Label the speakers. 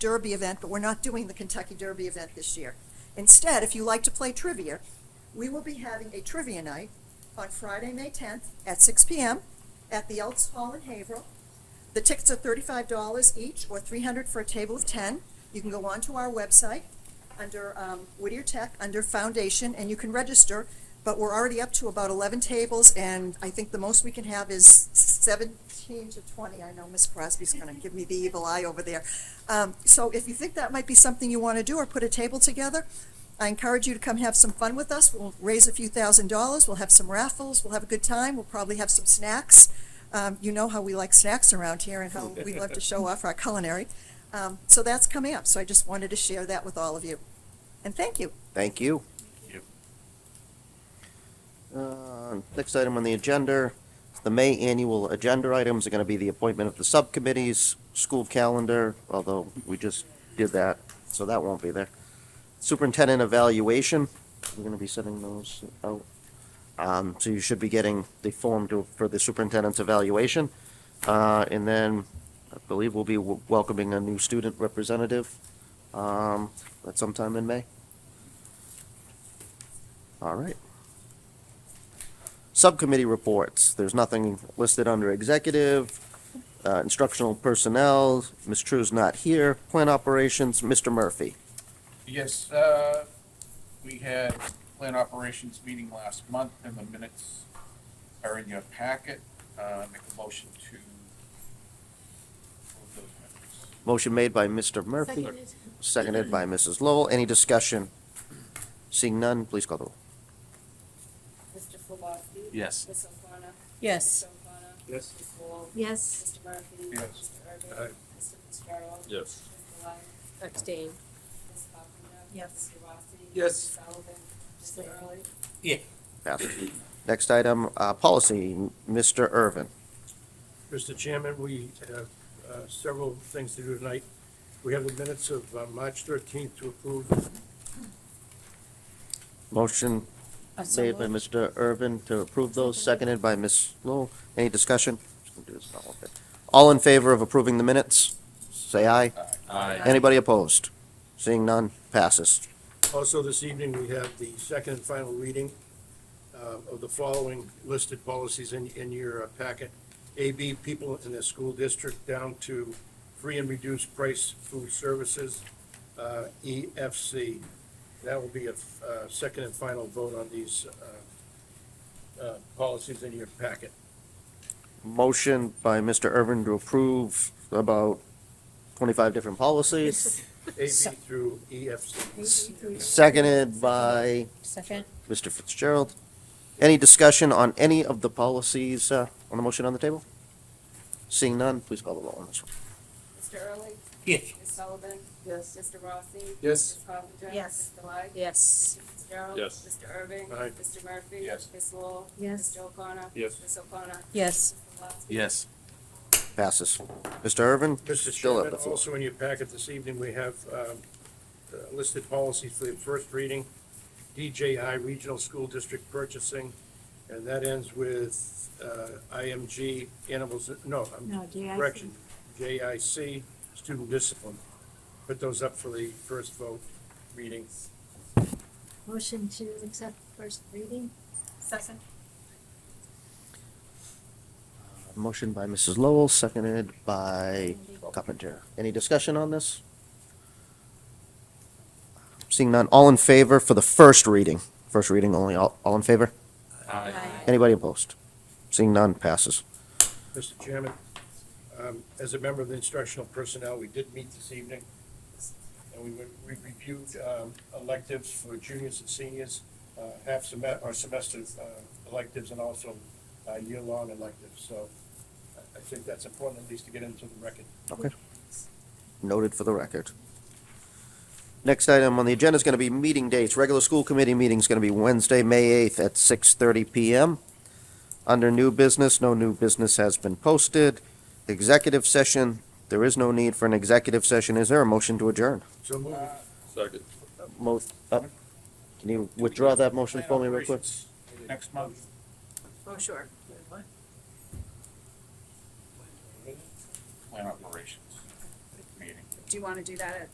Speaker 1: Derby event, but we're not doing the Kentucky Derby event this year. Instead, if you like to play trivia, we will be having a trivia night on Friday, May 10th at 6 PM at the Elks Hall in Haverhill. The tickets are $35 each or 300 for a table of 10. You can go onto our website under um, Whittier Tech, under Foundation, and you can register. But we're already up to about 11 tables, and I think the most we can have is 17 to 20. I know Miss Crosby's going to give me the evil eye over there. Um, So if you think that might be something you want to do or put a table together, I encourage you to come have some fun with us. We'll raise a few thousand dollars, we'll have some raffles, we'll have a good time, we'll probably have some snacks. Um, you know how we like snacks around here and how we love to show off our culinary. Um, so that's coming up, so I just wanted to share that with all of you. And thank you.
Speaker 2: Thank you.
Speaker 3: Yep.
Speaker 2: Uh, Next item on the agenda, the May annual agenda items are going to be the appointment of the subcommittees, school calendar, although we just did that, so that won't be there. Superintendent evaluation, we're going to be sending those out. Um, So you should be getting the form to, for the superintendent's evaluation. Uh, And then I believe we'll be w- welcoming a new student representative um, at sometime in May. All right. Subcommittee reports, there's nothing listed under executive, uh, instructional personnel, Ms. True's not here, plant operations, Mr. Murphy.
Speaker 3: Yes, uh, we had plant operations meeting last month and the minutes are in your packet. Uh, make a motion to approve those minutes.
Speaker 2: Motion made by Mr. Murphy,
Speaker 4: Seconded.
Speaker 2: seconded by Mrs. Lowell, any discussion? Seeing none, please call the roll.
Speaker 5: Mr. Flubowski?
Speaker 3: Yes.
Speaker 5: Ms. O'Connor?
Speaker 4: Yes.
Speaker 5: Mr. O'Connor?
Speaker 6: Yes.
Speaker 5: Ms. Lowell?
Speaker 4: Yes.
Speaker 5: Mr. Murphy?
Speaker 3: Yes.
Speaker 5: Mr.
Speaker 6: Aye.
Speaker 5: Irvin? Mr. Fitzgerald?
Speaker 6: Yes.
Speaker 5: Mr. Lyon?
Speaker 4: Abstain.
Speaker 5: Ms. Buckner?
Speaker 4: Yes.
Speaker 5: Mr. Rossi?
Speaker 6: Yes.
Speaker 5: Mr. Sullivan? Mr. Early?
Speaker 2: Passes. Next item, uh, policy, Mr. Irvin.
Speaker 6: Mr. Chairman, we have uh, several things to do tonight. We have the minutes of uh, March 13th to approve.
Speaker 2: Motion
Speaker 4: Uh, so
Speaker 2: made by
Speaker 4: moved.
Speaker 2: Mr. Irvin to approve those, seconded by Ms. Lowell, any discussion? Just gonna do this all in bit. All in favor of approving the minutes, say aye.
Speaker 3: Aye.
Speaker 2: Anybody opposed? Seeing none, passes.
Speaker 6: Also, this evening, we have the second and final reading uh, of the following listed policies in, in your uh, packet. AB, people in the school district down to free and reduced price food services, uh, EFC. That will be a uh, second and final vote on these uh, uh, policies in your packet.
Speaker 2: Motion by Mr. Irvin to approve about twenty-five different policies,
Speaker 6: AB through E, EFC.
Speaker 2: seconded by
Speaker 4: Second.
Speaker 2: Mr. Fitzgerald. Any discussion on any of the policies, uh, on the motion on the table? Seeing none, please call the roll on this one.
Speaker 5: Mr. Early?
Speaker 6: Yes.
Speaker 5: Ms. Sullivan?
Speaker 4: Yes.
Speaker 5: Mr. Rossi?
Speaker 6: Yes.
Speaker 5: Ms. Buckner?
Speaker 4: Yes.
Speaker 5: Mr. Lyon?
Speaker 4: Yes.
Speaker 5: Mr. Fitzgerald?
Speaker 6: Yes.
Speaker 5: Mr. Irvin?
Speaker 6: Aye.
Speaker 5: Mr. Murphy?
Speaker 3: Yes.
Speaker 5: Ms. Lowell?
Speaker 4: Yes.
Speaker 5: Mr. O'Connor?
Speaker 6: Yes.
Speaker 5: Ms. O'Connor?
Speaker 4: Yes.
Speaker 5: Mr. Flubowski?
Speaker 3: Yes.
Speaker 2: Passes. Mr. Irvin?
Speaker 6: Mr.
Speaker 2: still have
Speaker 6: Chairman,
Speaker 2: the floor.
Speaker 6: also in your packet this evening, we have um, uh, listed policies for the first reading. DJI Regional School District Purchasing, and that ends with uh, IMG Animals, no, I'm-
Speaker 4: No, JIC.
Speaker 6: correction, JIC Student Discipline. Put those up for the first vote reading.
Speaker 4: Motion to accept first reading? Second.
Speaker 2: Motion by Mrs. Lowell, seconded by Carpenter. Any discussion on this? Seeing none, all in favor for the first reading? First reading only, all, all in favor? Anybody opposed? Seeing none, passes.
Speaker 6: Mr. Chairman, um, as a member of the instructional personnel, we did meet this evening, and we went- we reviewed um, electives for juniors and seniors, uh, half semester, or semester uh, electives, and also uh, year-long electives. So I- I think that's important, at least to get into the record.
Speaker 2: Okay. Noted for the record. Next item on the agenda is going to be meeting dates. Regular school committee meeting is going to be Wednesday, May 8th at 6:30 PM. Under new business, no new business has been posted. Executive session, there is no need for an executive session. Is there a motion to adjourn?
Speaker 6: So move.
Speaker 7: Second.
Speaker 2: Mo- uh, Can you withdraw that motion for me real quick?
Speaker 3: Next month.
Speaker 5: Oh, sure.
Speaker 3: Plant operations meeting.
Speaker 5: do you want to do that at